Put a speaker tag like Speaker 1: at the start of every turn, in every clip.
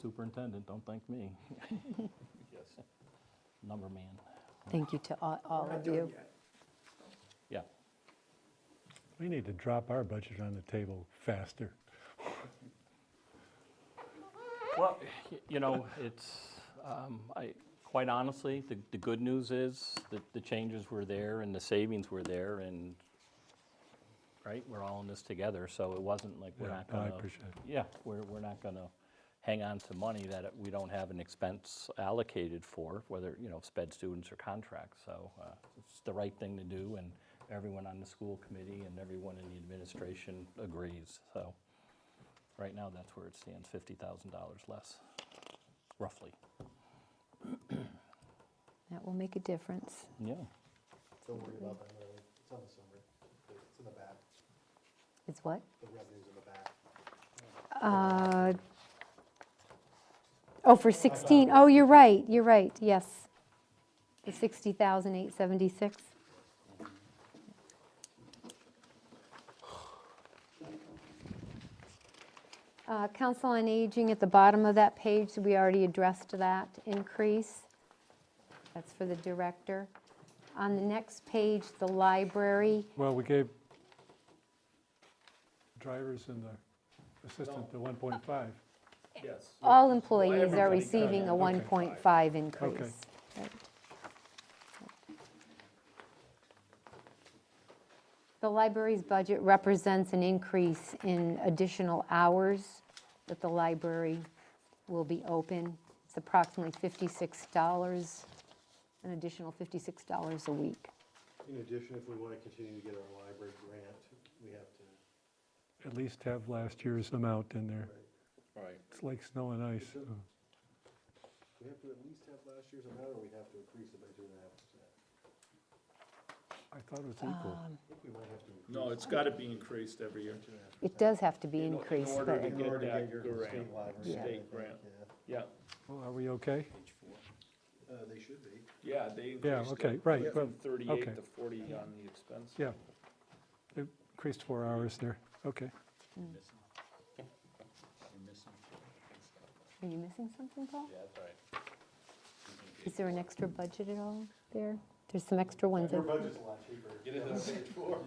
Speaker 1: superintendent, don't thank me. Number man,
Speaker 2: Thank you to all- all of you.
Speaker 1: yeah.
Speaker 3: We need to drop our budget on the table faster.
Speaker 1: Well, y- you know, it's, um, I, quite honestly, the, the good news is that the changes were there and the savings were there and, right, we're all in this together, so it wasn't like we're
Speaker 3: Yeah,
Speaker 1: not
Speaker 3: no, I
Speaker 1: gonna.
Speaker 3: appreciate it.
Speaker 1: Yeah, we're, we're not gonna hang on to money that it- we don't have an expense allocated for, whether, you know, sped students or contracts, so uh, it's the right thing to do, and everyone on the school committee and everyone in the administration agrees, so. Right now, that's where it stands, $50,000 less, roughly.
Speaker 2: That will make a difference.
Speaker 1: Yeah,
Speaker 4: Don't worry about that, Larry. It's on the summary. It's in the back.
Speaker 2: It's what?
Speaker 4: The revenue's in the back.
Speaker 2: Uh, Oh, for 16, oh, you're right, you're right, yes. The 60,876. Uh, Council on Aging, at the bottom of that page, we already addressed that increase. That's for the director. On the next page, the library,
Speaker 3: Well, we gave drivers and the assistant the 1.5.
Speaker 1: yes.
Speaker 2: All employees are
Speaker 3: everybody,
Speaker 2: receiving a
Speaker 3: okay.
Speaker 2: 1.5 increase. Right. The library's budget represents an increase in additional hours that the library will be open. It's approximately $56, an additional $56 a week.
Speaker 4: In addition, if we want to continue to get our library grant, we have to,
Speaker 3: At least have last year's amount in there.
Speaker 1: Right.
Speaker 3: It's like snow and ice. uh,
Speaker 4: we have to at least have last year's amount, or we have to increase it by two and a half percent.
Speaker 3: I thought it was equal.
Speaker 4: I think we might have to increase
Speaker 5: No, it's got to be increased every year.
Speaker 2: It does have to be
Speaker 5: In o- in
Speaker 2: increased,
Speaker 5: order
Speaker 2: but
Speaker 5: to
Speaker 4: in order to
Speaker 5: that
Speaker 4: get your
Speaker 5: grant,
Speaker 4: state library.
Speaker 2: state
Speaker 4: I think,
Speaker 5: grant.
Speaker 4: yeah.
Speaker 5: Yeah,
Speaker 3: Well, Are we okay?
Speaker 4: Uh, they should be.
Speaker 5: yeah, they increased.
Speaker 3: Yeah,
Speaker 5: it
Speaker 3: okay, right,
Speaker 4: Yeah.
Speaker 3: well,
Speaker 5: From 38
Speaker 3: okay.
Speaker 5: to 40 on the expense.
Speaker 3: yeah. It Increased four hours there, okay.
Speaker 2: are you missing something, Paul?
Speaker 1: that's right.
Speaker 2: Is there an extra budget at all there? There's some extra ones.
Speaker 4: Their
Speaker 2: in-
Speaker 4: budget's a lot cheaper. Get it on page four.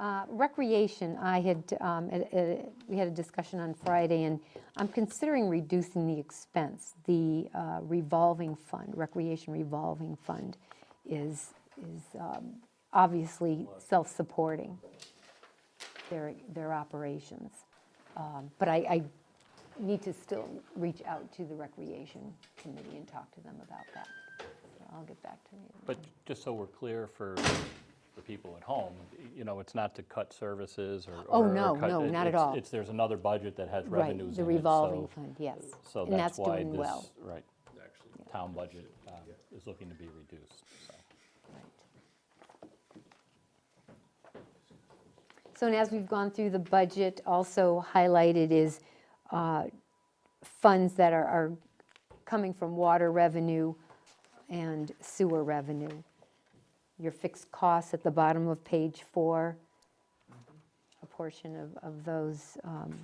Speaker 2: Uh, Recreation, I had, um, at- at- we had a discussion on Friday, and I'm considering reducing the expense. The uh, revolving fund, recreation revolving fund is, is um, obviously self-supporting their, their operations. Um, But I, I need to still reach out to the Recreation Committee and talk to them about that. So I'll get back to you.
Speaker 1: But just so we're clear for the people at home, y- you know, it's not to cut services or.
Speaker 2: Oh,
Speaker 1: or- or
Speaker 2: no,
Speaker 1: cut-
Speaker 2: no,
Speaker 1: it-
Speaker 2: not at
Speaker 1: it's-
Speaker 2: all.
Speaker 1: It's, there's another budget that has
Speaker 2: Right,
Speaker 1: revenues in it.
Speaker 2: The revolving
Speaker 1: so-
Speaker 2: fund, yes.
Speaker 1: So
Speaker 2: And
Speaker 1: that's why
Speaker 2: doing well.
Speaker 1: this, right, town budget um, is looking to be reduced, so.
Speaker 2: So, and as we've gone through the budget, also highlighted is uh, funds that are- are coming from water revenue and sewer revenue. Your fixed costs at the bottom of page four, a portion of, of those um,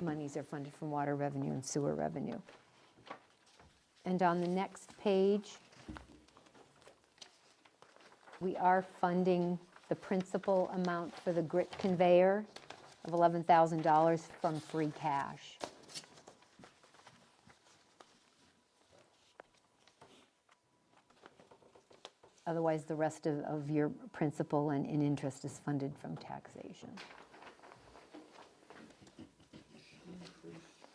Speaker 2: monies are funded from water revenue and sewer revenue. And on the next page, we are funding the principal amount for the grit conveyor of $11,000 from free cash. Otherwise, the rest of, of your principal and, and interest is funded from taxation.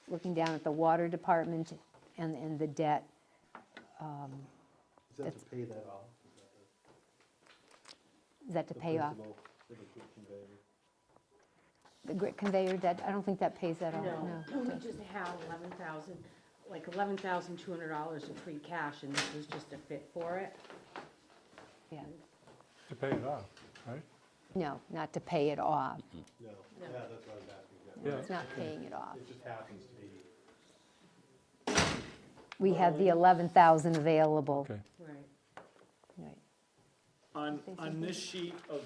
Speaker 2: Looking down at the water department and, and the debt, um,
Speaker 4: Is that to pay that off?
Speaker 2: is that to
Speaker 4: The
Speaker 2: pay off?
Speaker 4: principal that we could convey.
Speaker 2: The grit conveyor debt, I don't think that pays that off,
Speaker 6: No, we just have eleven thousand, like eleven thousand two hundred dollars in free cash, and this was just a fit for it.
Speaker 2: Yeah,
Speaker 3: To pay it off, right?
Speaker 2: no, not to pay it off.
Speaker 4: No,
Speaker 6: No.
Speaker 4: yeah, that's what I was asking. yeah.
Speaker 3: Yeah.
Speaker 2: It's not paying it off.
Speaker 4: It just happens to be.
Speaker 2: We had the 11,000 available.
Speaker 3: Okay.
Speaker 6: Right.
Speaker 2: Right.
Speaker 5: On,
Speaker 2: Think
Speaker 5: on this sheet of